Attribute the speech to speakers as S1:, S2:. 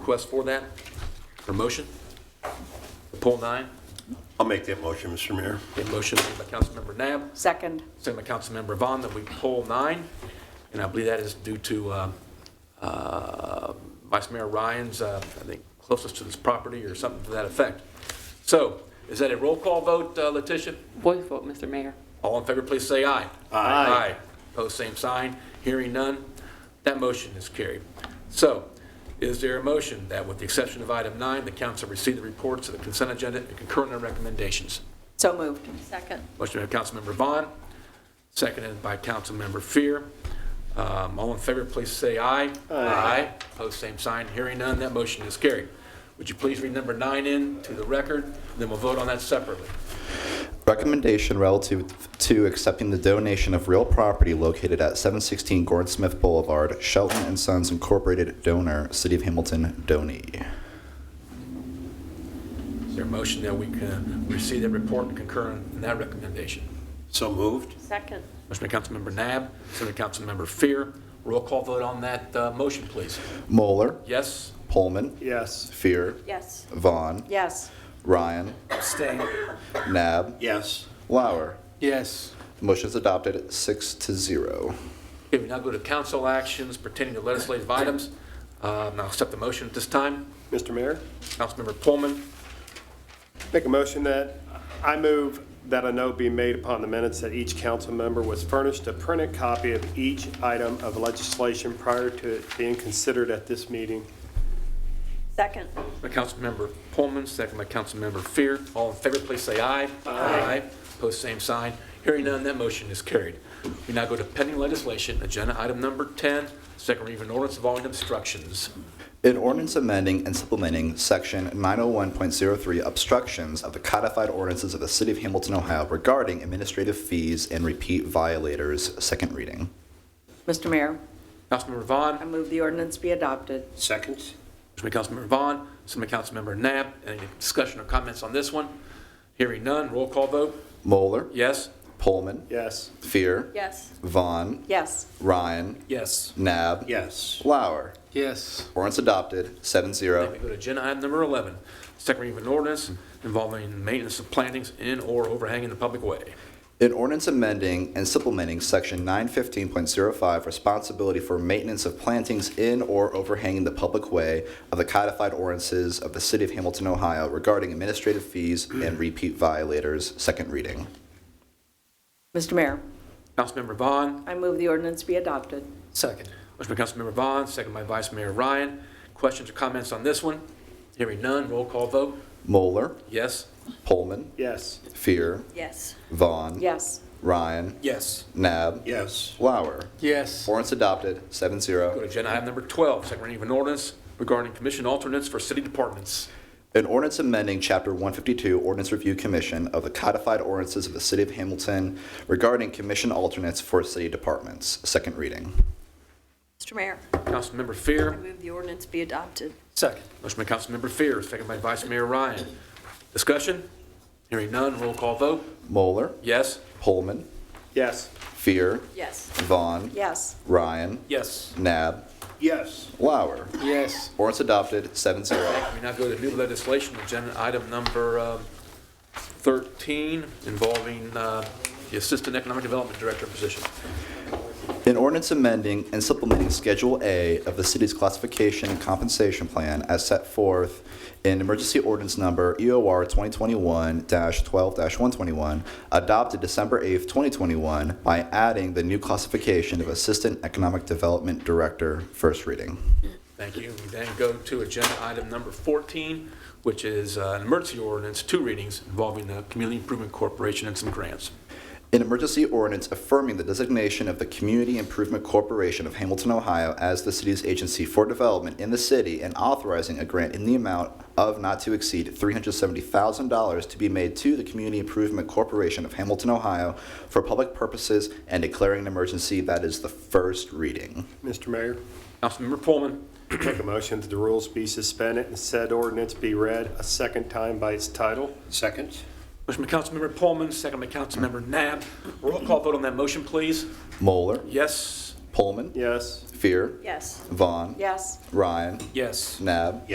S1: request for that, or motion? Poll nine,
S2: I'll make that motion, Mr. Mayor.
S1: a motion made by Councilmember Nab,
S3: Second.
S1: second by Councilmember Vaughn, that we poll nine, and I believe that is due to uh, uh, Vice Mayor Ryan's, uh, I think, closest to this property or something to that effect. So, is that a roll call vote, uh, Letitia?
S4: Voice vote, Mr. Mayor.
S1: All in favor, please say aye. Aye. Post same sign. Hearing none, that motion is carried. So is there a motion that with the exception of item nine, the council receive the reports of the consent agenda and concurrent recommendations?
S3: So moved.
S5: Second.
S1: Motion by Councilmember Vaughn, seconded by Councilmember Fear. Um, All in favor, please say aye. Aye. Post same sign. Hearing none, that motion is carried. Would you please read number nine in to the record, then we'll vote on that separately.
S6: Recommendation relative to accepting the donation of real property located at 716 Gordon Smith Boulevard, Shelton and Sons Incorporated donor, City of Hamilton, donee.
S1: Is there a motion that we can receive that report and concur in that recommendation?
S2: So moved?
S5: Second.
S1: Motion by Councilmember Nab, second by Councilmember Fear. Roll call vote on that uh, motion, please.
S6: Moeller,
S1: Yes?
S6: Pullman,
S7: Yes.
S6: Fear,
S5: Yes.
S6: Vaughn,
S3: Yes.
S6: Ryan,
S7: Abstain.
S6: Nab,
S2: Yes.
S6: Lauer.
S1: Yes.
S6: Motion is adopted, six to zero.
S1: Okay, we now go to council actions pertaining to legislative items. Um, I'll accept the motion at this time.
S7: Mr. Mayor,
S1: Councilmember Pullman,
S7: make a motion that I move that a note be made upon the minutes that each council member was furnished a printed copy of each item of legislation prior to it being considered at this meeting.
S5: Second.
S1: by Councilmember Pullman, second by Councilmember Fear. All in favor, please say aye. Aye. Post same sign. Hearing none, that motion is carried. We now go to pending legislation, agenda item number 10, second reading of an ordinance involving obstructions.
S6: An ordinance amending and supplementing Section 901.03 obstructions of the codified ordinances of the City of Hamilton, Ohio regarding administrative fees and repeat violators, second reading.
S3: Mr. Mayor,
S1: Councilmember Vaughn?
S3: I move the ordinance be adopted.
S2: Second?
S1: Motion by Councilmember Vaughn, second by Councilmember Nab. Any discussion or comments on this one? Hearing none, roll call vote.
S6: Moeller,
S1: Yes?
S6: Pullman,
S7: Yes.
S6: Fear,
S5: Yes.
S6: Vaughn,
S3: Yes.
S6: Ryan,
S1: Yes.
S6: Nab,
S2: Yes.
S6: Lauer.
S1: Yes.
S6: Ordinance adopted, seven
S1: Then we
S6: zero.
S1: go to agenda item number 11, second reading of an ordinance involving maintenance of plantings in or overhanging the public way.
S6: An ordinance amending and supplementing Section 915.05 responsibility for maintenance of plantings in or overhanging the public way of the codified ordinances of the City of Hamilton, Ohio regarding administrative fees and repeat violators, second reading.
S3: Mr. Mayor,
S1: Councilmember Vaughn?
S3: I move the ordinance be adopted.
S1: Second. Motion by Councilmember Vaughn, second by Vice Mayor Ryan. Questions or comments on this one? Hearing none, roll call vote.
S6: Moeller,
S1: Yes?
S6: Pullman,
S7: Yes.
S6: Fear,
S5: Yes.
S6: Vaughn,
S3: Yes.
S6: Ryan,
S1: Yes.
S6: Nab,
S2: Yes.
S6: Lauer.
S1: Yes.
S6: Ordinance adopted, seven
S1: Go to
S6: zero.
S1: agenda item number 12, second reading of an ordinance regarding commission alternates for city departments.
S6: An ordinance amending Chapter 152 Ordinance Review Commission of the codified ordinances of the City of Hamilton regarding commission alternates for city departments, second reading.
S5: Mr. Mayor,
S1: Councilmember
S5: I
S1: Fear.
S5: move the ordinance be adopted.
S1: Second. Motion by Councilmember Fear, second by Vice Mayor Ryan. Discussion? Hearing none, roll call vote.
S6: Moeller,
S1: Yes?
S6: Pullman,
S7: Yes.
S6: Fear,
S5: Yes.
S6: Vaughn,
S3: Yes.
S6: Ryan,
S1: Yes.
S6: Nab,
S2: Yes.
S6: Lauer.
S1: Yes.
S6: Ordinance adopted, seven zero.
S1: We now go to new legislation, agenda item number um, 13, involving uh, the Assistant Economic Development Director position.
S6: An ordinance amending and supplementing Schedule A of the city's classification and compensation plan as set forth in emergency ordinance number E EOR 2021-12-121, adopted December 8th, 2021, by adding the new classification of Assistant Economic Development Director, first reading.
S1: Thank you. We then go to agenda item number 14, which is uh, an emergency ordinance, two readings, involving the Community Improvement Corporation and some grants.
S6: An emergency ordinance affirming the designation of the Community Improvement Corporation of Hamilton, Ohio as the city's agency for development in the city and authorizing a grant in the amount of not to exceed $370,000 to be made to the Community Improvement Corporation of Hamilton, Ohio for public purposes and declaring an emergency. That is the first reading.
S7: Mr. Mayor,
S1: Councilmember Pullman.
S7: make a motion that the rules be suspended and said ordinance be read a second time by its title.
S2: Second?
S1: Motion by Councilmember Pullman, second by Councilmember Nab. Roll call vote on that motion, please.
S6: Moeller,
S1: Yes.
S6: Pullman,
S7: Yes.
S6: Fear,
S5: Yes.
S6: Vaughn,
S3: Yes.
S6: Ryan,
S1: Yes.
S6: Nab,